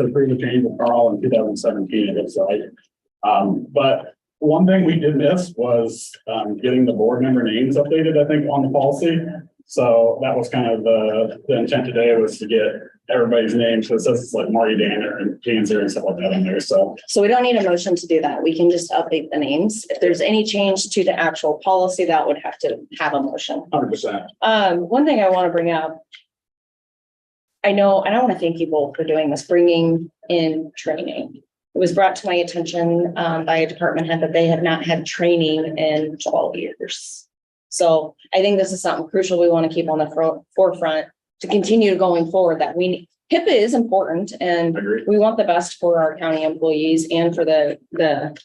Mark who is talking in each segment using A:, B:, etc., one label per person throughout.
A: for the previous annual call in two thousand seventeen, it looks like. Um, but one thing we did miss was, um, getting the board member names updated, I think, on the policy. So that was kind of the, the intent today was to get everybody's names, so it says it's like Marty Danner and Danzer and stuff like that in there, so.
B: So we don't need a motion to do that. We can just update the names. If there's any change to the actual policy, that would have to have a motion.
A: Hundred percent.
B: Um, one thing I want to bring up. I know, and I want to thank you both for doing this, bringing in training. It was brought to my attention, um, by a department head that they had not had training in twelve years. So I think this is something crucial we want to keep on the fro- forefront to continue going forward that we, HIPAA is important and
A: Agreed.
B: we want the best for our county employees and for the, the,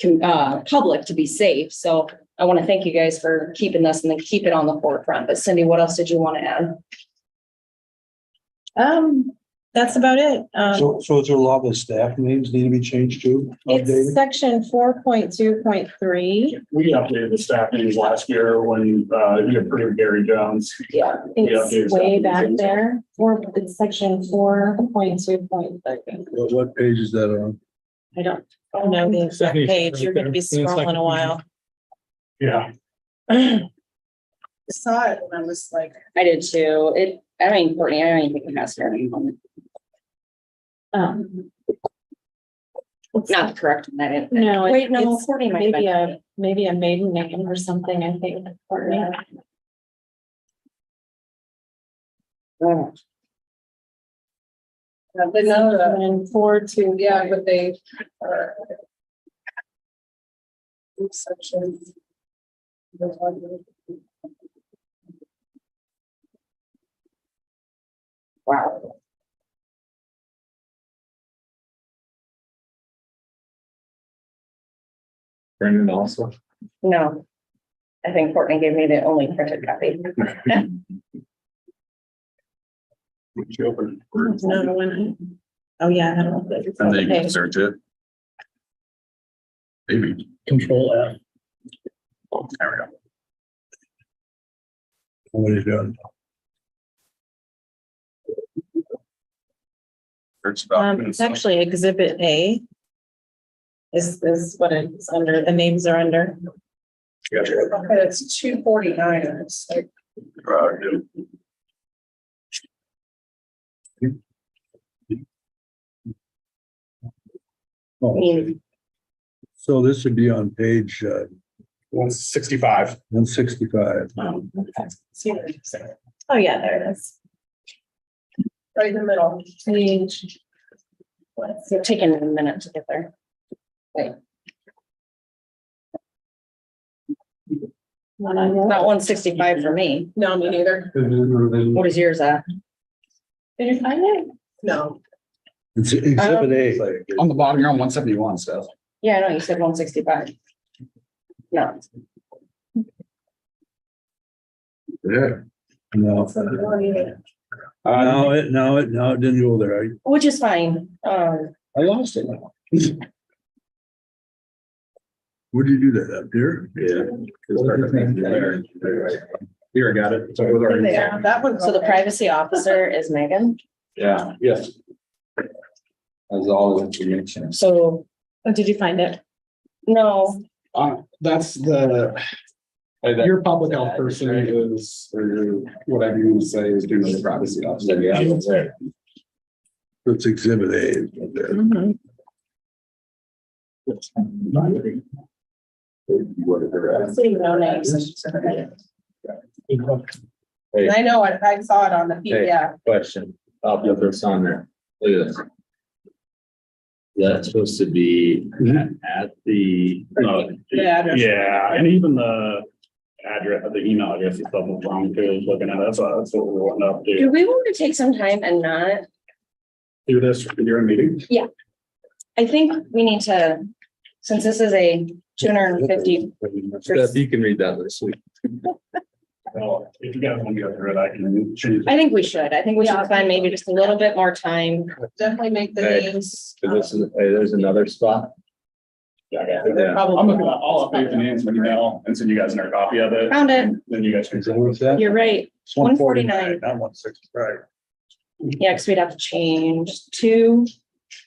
B: com- uh, public to be safe. So I want to thank you guys for keeping this and then keep it on the forefront. But Cindy, what else did you want to add?
C: Um, that's about it. Um,
D: So, uh, so is there a law that staff names need to be changed too,
C: it's
D: updated?
C: section four point two point three.
A: We updated the staff names last year when, uh, you approved Gary Jones.
B: Yeah.
A: there's
C: It's way back
A: something.
C: there. Four, it's section four point two point three.
D: What, what page is that on?
C: I don't, oh no, the exact
E: Second,
C: page. You're gonna be
E: right there.
C: scrolling a while.
A: Yeah,
C: Saw it and I was like.
B: I did too. It, I mean, Courtney, I don't even think it has her name on it.
C: Um,
B: Not the correct, one, I didn't.
C: no. it-
B: Wait, no,
C: it's
B: Courtney might have
C: Maybe
B: been.
C: a, maybe a maiden name or something, I think. or, uh,
B: Oh, uh,
F: But now that,
C: And four two.
F: yeah, but they are. Section.
B: Wow.
E: Brendan also.
B: No. I think Courtney gave me the only printed copy.
A: which you opened.
C: Another one. Oh, yeah. I don't know.
G: And then you
C: Okay.
G: can search it. Maybe, Oh,
E: Control F.
G: there we go.
D: What is done?
G: Search
C: Um, it's
G: documents.
C: actually exhibit A. Is, is what it's under, the names are under.
G: Gotcha.
F: Okay, it's two forty-nine, it's like,
G: Uh, do-
B: I
D: Oh, okay.
B: mean,
D: So this would be on page uh,
A: One sixty-five.
D: one sixty-five.
C: Um, okay.
F: see what I'm saying?
C: Oh, yeah, there it is.
F: right in the middle.
C: Page.
B: it's taking a minute to get there.
C: Not on your-
B: Not one sixty-five for me.
F: No, me neither.
B: What is yours at?
C: Did you find it?
F: No.
D: It's exhibit A.
G: On the bottom, you're on one seventy-one, Steph.
B: Yeah, I know, you said one sixty-five. No,
G: Yeah.
D: No,
F: it's not on either.
D: no, it, no, it, no, it didn't go there. I,
B: which is fine. Um,
D: I lost it. Where'd you do that up there?
G: Here, I got it.
F: Yeah, that one's.
B: so the
F: okay.
B: privacy officer is Megan.
G: Yeah, yes. That's all the information.
B: So,
C: Oh, did you find it?
B: no,
A: Uh, that's the, your public health person is, or whatever you say is doing the privacy officer.
D: It's exhibit A.
C: Mhm.
A: Mm-hmm.
F: See, no names. And I know, I, I saw it on the PDF.
H: Question, Bob, the first on there, look at this. That's supposed to be at, at the, oh,
F: Yeah.
A: Yeah, and even the address, the email address is double wrong too, looking at, that's, what- that's what we're wanting to
B: do
A: update.
B: we want to take some time and not,
A: Do this during meetings.
B: I think we need to, since this is a two hundred and fifty.
H: Steph, you can read that this week.
A: Well, if you guys want to go through it, I can change.
B: I think we should. I think we should spend maybe just a little bit more time.
F: Definitely make the
H: Hey,
F: names.
H: So This is, hey, there's another spot.
A: it.
H: Yeah.
A: I'm looking at, I'll update the names in email and send you guys in our copy of it,
B: Found it.
A: then you guys can.
D: Is that what's that?
B: You're right.
D: It's 149, Not one sixty-five.
B: Yeah, because we'd have to change two